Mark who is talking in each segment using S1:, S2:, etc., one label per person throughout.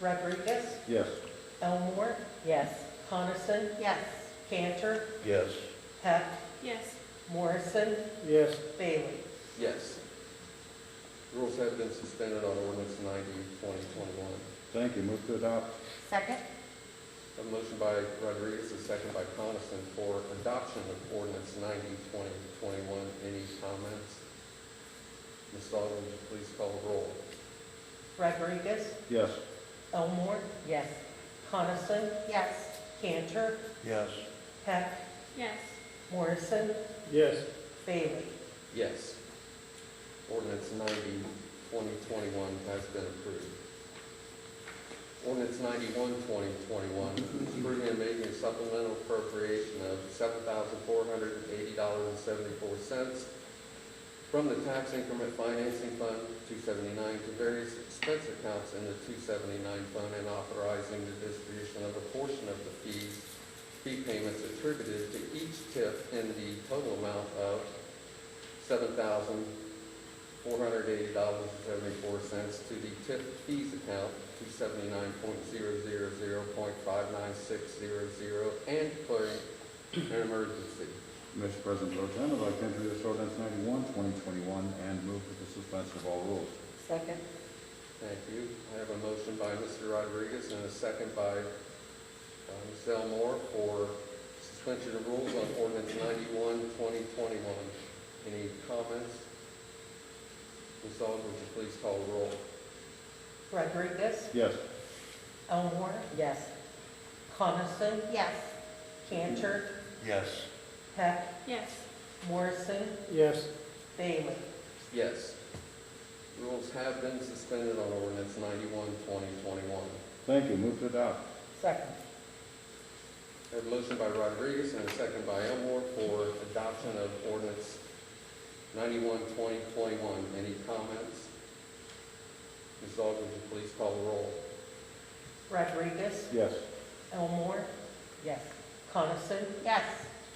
S1: Rodriguez,
S2: Yes.
S1: Elmore,
S3: Yes.
S1: Coniston,
S4: Yes.
S1: Cantor,
S2: Yes.
S1: Heck,
S5: Yes.
S1: Morrison,
S2: Yes.
S1: Bailey.
S6: Yes. Rules have been suspended on ordinance 90, 2021.
S2: Thank you. Move to adopt.
S4: Second?
S6: A motion by Rodriguez, a second by Coniston for adoption of ordinance 90, 2021. Any comments? Ms. Aug, would you please call the roll?
S1: Rodriguez,
S2: Yes.
S1: Elmore,
S3: Yes.
S1: Coniston,
S4: Yes.
S1: Cantor,
S2: Yes.
S1: Heck,
S5: Yes.
S1: Morrison,
S2: Yes.
S1: Bailey.
S6: Yes. Ordinance 90, 2021 has been approved. Ordinance 91, 2021, approving and making a supplemental appropriation of $7,480.74 from the tax increment financing fund 279 to various expense accounts in the 279 fund and authorizing the distribution of a portion of the fees, fee payments attributed to each tip in the total amount of seven thousand four hundred eighty dollars and seventy-four cents to the tip fees account, two seventy-nine point zero zero zero point five nine six zero zero, and declaring an emergency.
S2: Mr. President Pro Tem, I'd like to introduce ordinance 91, 2021, and move for the suspension of all rules.
S3: Second?
S6: Thank you. I have a motion by Mr. Rodriguez and a second by uh, Ms. Elmore for suspension of rules on ordinance 91, 2021. Any comments? Ms. Aug, would you please call the roll?
S1: Rodriguez,
S2: Yes.
S1: Elmore,
S3: Yes.
S1: Coniston,
S4: Yes.
S1: Cantor,
S2: Yes.
S1: Heck,
S5: Yes.
S1: Morrison,
S2: Yes.
S1: Bailey.
S6: Yes. Rules have been suspended on ordinance 91, 2021.
S2: Thank you. Move to adopt.
S3: Second?
S6: I have a motion by Rodriguez and a second by Elmore for adoption of ordinance 91, 2021. Any comments? Ms. Aug, would you please call the roll?
S1: Rodriguez,
S2: Yes.
S1: Elmore,
S3: Yes.
S1: Coniston,
S4: Yes.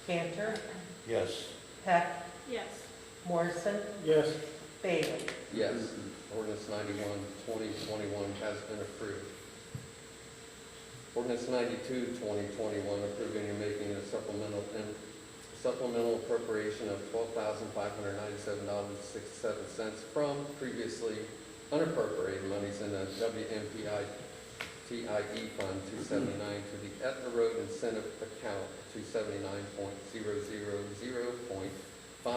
S1: Cantor,
S2: Yes.
S1: Heck,
S5: Yes.
S1: Morrison,
S2: Yes.
S1: Bailey.
S6: Yes, ordinance 91, 2021 has been approved. Ordinance 92, 2021, approving and making a supplemental, and supplemental appropriation of $12,597.67 from previously unappropriated monies in the WMPI TIE E Fund 279 to the Etna Road Incentive Account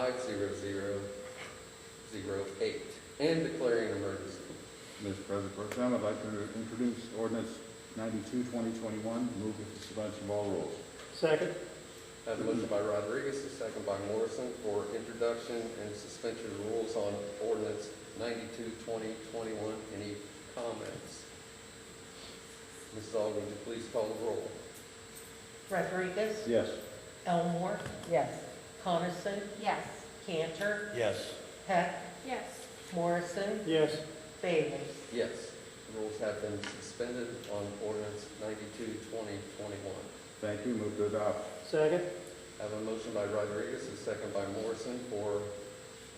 S6: 279.000.50008 and declaring an emergency.
S2: Mr. President Pro Tem, I'd like to introduce ordinance 92, 2021, move for the suspension of all rules.
S7: Second?
S6: I have a motion by Rodriguez, a second by Morrison for introduction and suspension of rules on ordinance 92-2021. Any comments? Mrs. Aug, would you please call the roll?
S1: Rodriguez,
S2: Yes.
S1: Elmore,
S3: Yes.
S1: Coniston,
S4: Yes.
S1: Cantor,
S2: Yes.
S1: Heck,
S5: Yes.
S1: Morrison,
S7: Yes.
S1: Bailey.
S6: Yes, rules have been suspended on ordinance 92-2021.
S2: Thank you. Move to adopt.
S7: Second?
S6: I have a motion by Rodriguez, a second by Morrison for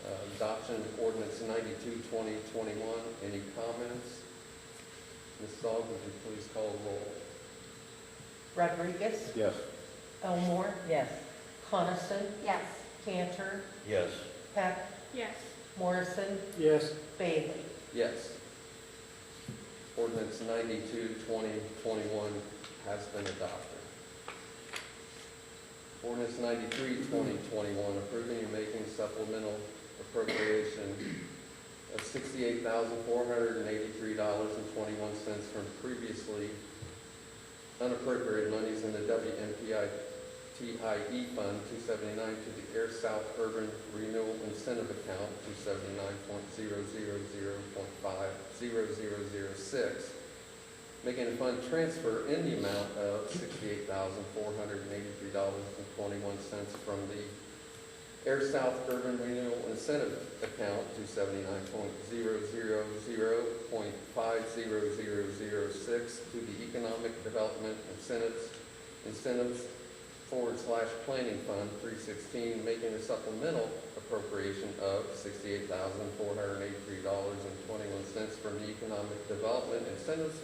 S6: uh, adoption of ordinance 92-2021. Any comments? Mrs. Aug, would you please call the roll?
S1: Rodriguez,
S2: Yes.
S1: Elmore,
S3: Yes.
S1: Coniston,
S4: Yes.
S1: Cantor,
S2: Yes.
S1: Heck,
S5: Yes.
S1: Morrison,
S7: Yes.
S1: Bailey.
S6: Yes. Ordinance 92, 2021 has been adopted. Ordinance 93, 2021, approving and making supplemental appropriation of $68,483.21 from previously unappropriated monies in the WMPI TIE E Fund 279 to the Air South Urban Renewal Incentive Account 279.000.5006, making a fund transfer in the amount of $68,483.21 from the Air South Urban Renewal Incentive Account 279.000.5006 to the Economic Development Incentives, Incentives forward slash planning fund three sixteen, making a supplemental appropriation of sixty-eight thousand, four hundred and eighty-three dollars and twenty-one cents from the economic development incentives